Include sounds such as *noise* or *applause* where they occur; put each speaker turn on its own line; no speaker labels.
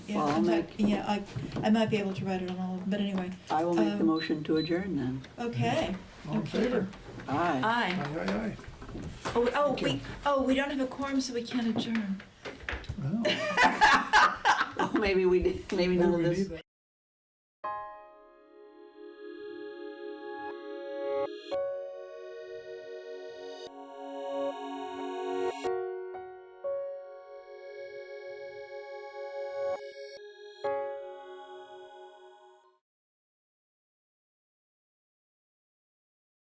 Yeah,
Well, I'll
in fact,
make-
yeah, I, I might be able to write it on all of them, but anyway,
I will make the
Um,
motion to adjourn then.
okay.
All in favor?
Aye.
Aye,
Aye.
aye, aye.
Oh, we- oh,
Thank you.
we, oh, we don't have a quorum, so we can't adjourn.
Wow. *laughs*
Maybe we did, maybe none of
Maybe we
this
need that.